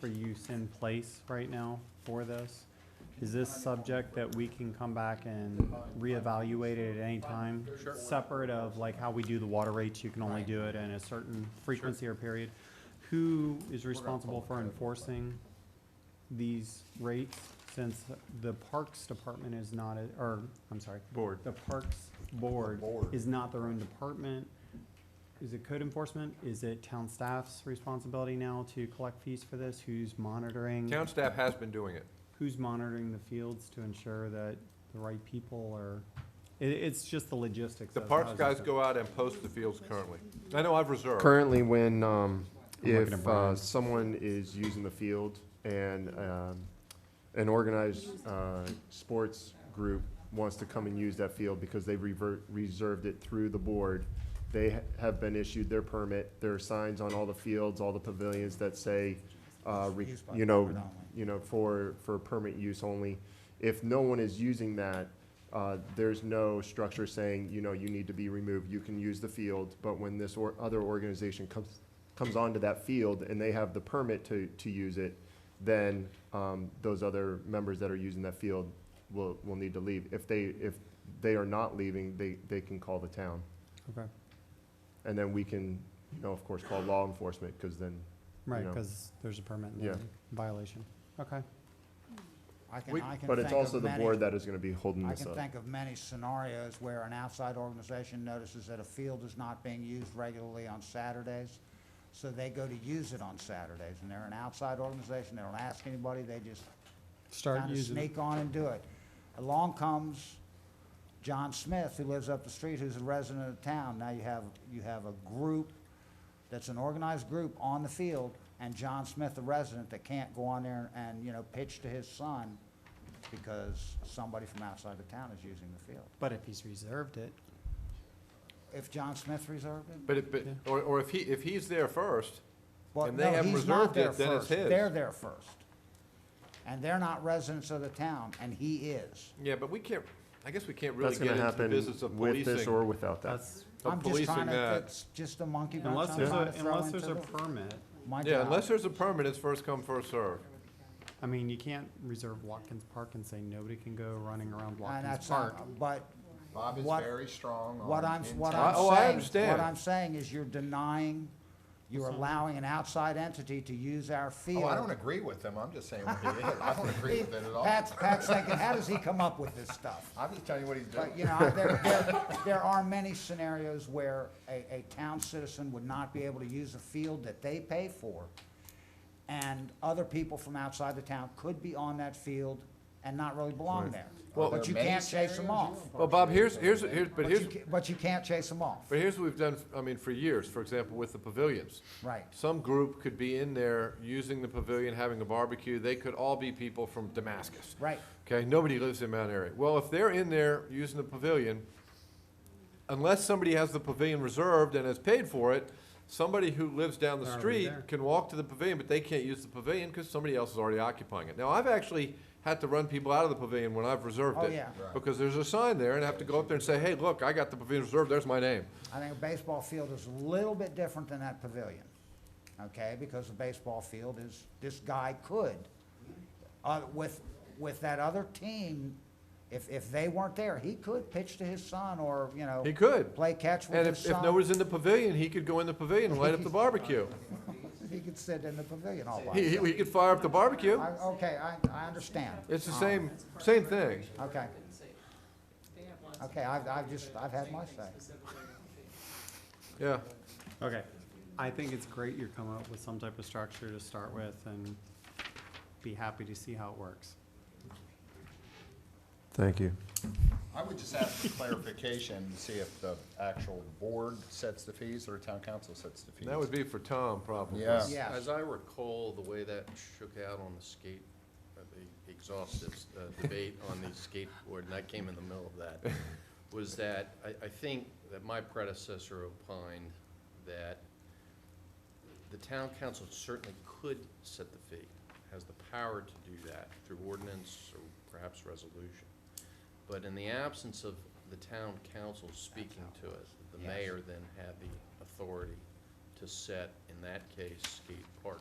for use in place right now for this? Is this subject that we can come back and reevaluate it at any time? Sure. Separate of like how we do the water rates, you can only Right. do it in a certain frequency or period. Who is responsible for follow code. enforcing these rates? Since the Parks Department is not, a- or, I'm sorry, Board. the Parks Board Board. is not their own department. Is it code enforcement? Is it town staff's responsibility now to collect fees for this? Who's monitoring? Town staff has been doing it. Who's monitoring the fields to ensure that the right people are, it, it's just the logistics. The of parks how this guys is- go out and post the fields currently. I know I've reserved. Currently, when, um, I'm looking at if, uh, Brian. someone is using the field and, um, an organized, uh, sports group wants to come and use that field because they revert, reserved it through the board, they ha- have been issued their permit, there are signs on all the fields, all the pavilions that say, uh, re- Used by you know, board only. you know, for, for permit use only. If no one is using that, uh, there's no structure saying, you know, you need to be removed, you can use the field, but when this or, other organization comes, comes onto that field and they have the permit to, to use it, then, um, those other members that are using that field will, will need to leave. If they, if they are not leaving, they, they can call the town. Okay, And then we can, you know, of course, call law enforcement, cause then, right, know. because there's a permit Yeah. violation. Okay, I can, We- I can but it's think of also the many- board that is gonna be holding I this can up. think of many scenarios where an outside organization notices that a field is not being used regularly on Saturdays, so they go to use it on Saturdays, and they're an outside organization, they don't ask anybody, they just start kinda using. it. sneak on and do it. Along comes John Smith, who lives up the street, who's a resident of town. Now you have, you have a group that's an organized group on the field, and John Smith, the resident, that can't go on there and, you know, pitch to his son because somebody from outside the town is using the field. But if he's reserved it, If John Smith reserved it? But, it- but, Yeah. or, or if he, if he's there first, Well, And they no, haven't he's not reserved there it, then it's first. his. They're there first. And they're not residents of the town, and he is. yeah, but we can't, I guess we can't really That's get gonna into the happen business of with this policing, or without that. that's, of I'm just policing trying to, that. it's just a monkey wrench unless I'm there's trying a, to throw unless into there's a the, permit, my Yeah, unless job. there's a permit, it's first come, first served. I mean, you can't reserve Watkins Park and say nobody can go running around And Watkins that's, Park. not- but Bob is What- very strong on. what I'm, what I- I'm intent. oh, I saying, what understand. I'm saying is you're denying, you're allowing an outside entity to use our field. Oh, I don't agree with him, I'm just saying what he is, I don't agree with it at all. Pat's, Pat's thinking, how does he come up with this stuff? I'm just telling you what he's doing. But, you know, there, there, there are many scenarios where a, a town citizen would not be able to use a field that they pay for. And other people from outside the town could be on that field and not really belong there. Well- But you There are many can't chase them off. scenarios, you know. Well, Bob, here's, here's, here's, but But you, here's, ca- but you can't chase them off. but here's what we've done, I mean, for years, for example, with the pavilions. Right. Some group could be in there using the pavilion, having a barbecue, they could all be people from Damascus. Right. Okay, nobody lives in Mount Airy. Well, if they're in there using the pavilion, unless somebody has the pavilion reserved and has paid for it, somebody who lives down the Already street there. can walk to the pavilion, but they can't use the pavilion because somebody else is already occupying it. Now, I've actually had to run people out of the pavilion when I've reserved Oh, it. yeah. Right. Because there's a sign there and I have to go up there and say, hey, look, I got the pavilion reserved, there's my name. I think a baseball field is a little bit different than that pavilion, okay? Because a baseball field is, this guy could, uh, with, with that other team, if, if they weren't there, he could pitch to his son or, you know. He could. Play catch with And his if, if son. nobody's in the pavilion, he could go in the pavilion and light up the barbecue. He could sit in the pavilion all by He, he himself. he could fire up the barbecue. I, okay, I, I understand. It's the same, same thing. Okay. Okay, I've, I've just, I've had my say. Yeah. Okay, I think it's great you're coming up with some type of structure to start with and be happy to see how it works. Thank you. I would just ask for clarification, to see if the actual board sets the fees or town council sets the fees. That would be for Tom, probably. Yeah. Yeah. As I recall, the way that shook out on the skate, uh, the exhaustive uh, debate on the skateboard, and I came in the middle of that, was that I, I think that my predecessor opined that the town council certainly could set the fee, has the power to do that through ordinance or perhaps resolution. But in the absence of the town council speaking to it, the Yes. mayor then had the authority to set, in that case, skate park